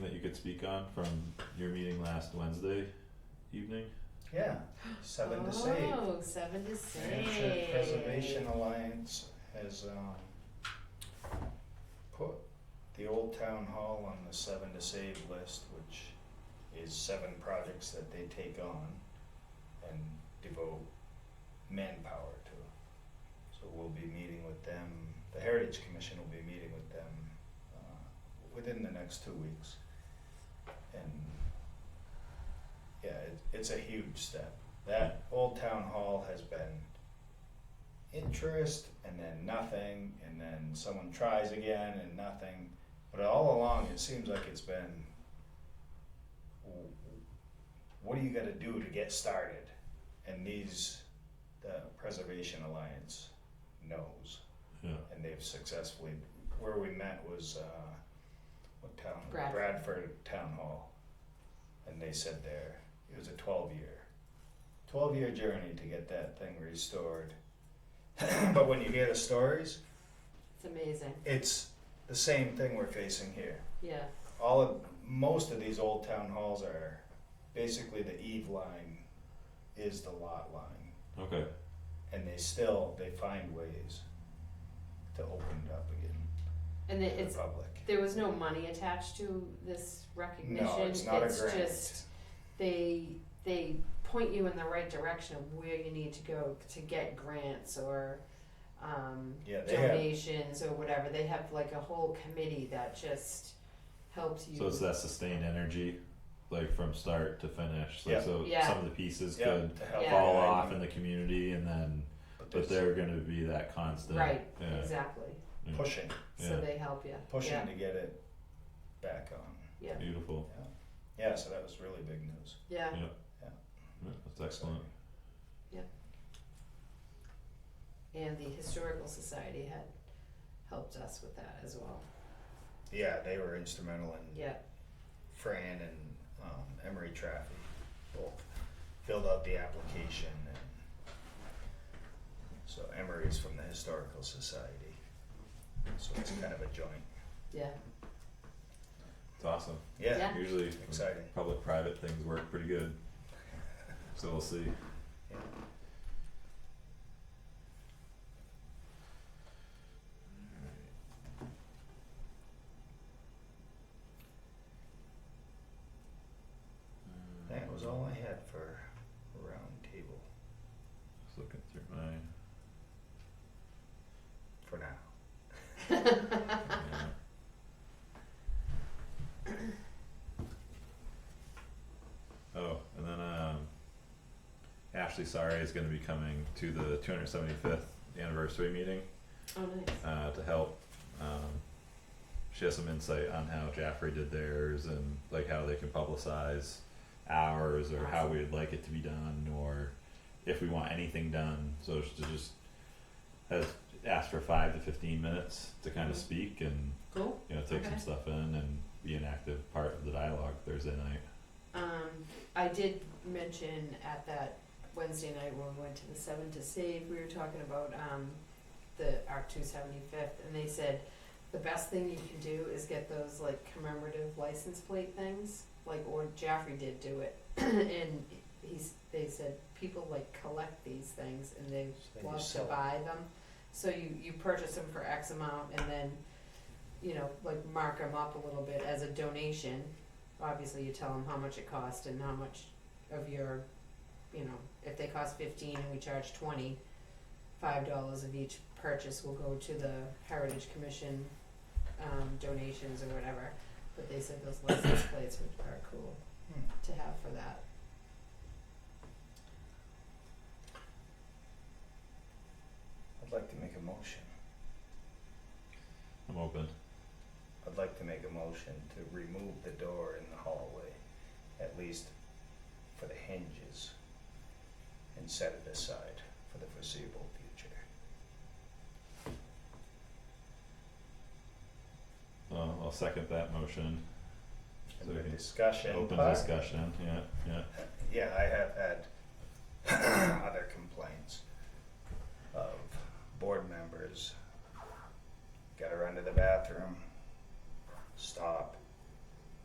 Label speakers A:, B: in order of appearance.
A: could speak on from your meeting last Wednesday evening?
B: Yeah, seven to save.
C: Oh, seven to save.
B: Hampshire Preservation Alliance has, um, put the old town hall on the seven to save list, which is seven projects that they take on and devote manpower to. So we'll be meeting with them, the Heritage Commission will be meeting with them, uh, within the next two weeks. And, yeah, it, it's a huge step. That old town hall has been interest and then nothing and then someone tries again and nothing. But all along, it seems like it's been, w- what do you got to do to get started? And these, the Preservation Alliance knows,
A: Yeah,
B: and they've successfully. Where we met was uh, what town?
C: Bradford.
B: Bradford Town Hall, and they said there it was a twelve year, twelve year journey to get that thing restored. but when you hear the stories,
C: It's amazing,
B: it's the same thing we're facing here.
C: yeah.
B: All of most of these old town halls are basically the eve line is the lot line,
A: okay,
B: and they still they find ways to open it up again
C: And it-
B: to
C: it's,
B: the public.
C: there was no money attached to this recognition.
B: No, it's not a grant.
C: just, they, they point you in the right direction of where you need to go to get grants or, um,
B: yeah, they have
C: donations or whatever. They have like a whole committee that just helps you.
A: so it's that sustained energy, like from start to finish, like
B: Yeah.
A: so
C: Yeah.
A: some of the pieces
B: yeah,
A: could
B: to help
C: Yeah.
A: fall
B: guide
A: off
B: them,
A: in the community and then, but
B: there's
A: they're gonna be that constant,
C: Right,
A: yeah,
C: exactly.
A: yeah.
B: pushing,
A: Yeah.
C: So they help you.
B: pushing
C: Yeah,
B: to get it back on.
C: yeah,
A: beautiful,
B: Yeah, so that was really big news.
C: yeah.
A: Yeah, that's excellent,
C: And the Historical Society had helped us with that as well.
B: Yeah, they were instrumental in
C: Yeah,
B: Fran and um, Emery Traffy both filled out the application and so Emery's from the Historical Society. So it's kind of a joint.
C: yeah,
A: it's awesome,
B: Yeah,
C: Yeah.
A: usually
B: exciting.
A: public private things work pretty good, so we'll see.
B: Yeah. That was all I had for round table
A: Just looking through my,
B: for now.
A: yeah. Oh, and then um Ashley Sari is gonna be coming to the two hundred seventy fifth anniversary meeting
C: oh, nice.
A: uh to help um she has some insight on how Jaffrey did theirs and like how they can publicize ours or how
C: Awesome.
A: we'd like it to be done or if we want anything done. So she just has asked for five to fifteen minutes to kind
C: Mhm.
A: of speak and
C: Cool.
A: you know, take
C: Okay.
A: some stuff in and be an active part of the dialogue Thursday night.
C: Um, I did mention at that Wednesday night when we went to the Seven to Save, we were talking about, um, the Arc two seventy-fifth, and they said, the best thing you can do is get those like commemorative license plate things, like, or Jaffrey did do it, and he's, they said, people like collect these things and they
B: So you
C: love to
B: sell it.
C: buy them. So you, you purchase them for X amount and then, you know, like mark them up a little bit as a donation. Obviously, you tell them how much it cost and how much of your, you know, if they cost fifteen and we charge twenty, five dollars of each purchase will go to the Heritage Commission, um, donations or whatever. But they said those license plates would are cool
B: Hmm.
C: to have for that.
B: I'd like to make a motion.
A: I'm open.
B: I'd like to make a motion to remove the door in the hallway, at least for the hinges, and set it aside for the foreseeable future.
A: So Uh, I'll second that motion. So
B: And
A: we
B: the
A: can
B: discussion.
A: Open
B: part-
A: discussion, yeah, yeah.
B: Yeah, I have had other complaints of board members. Gotta run to the bathroom,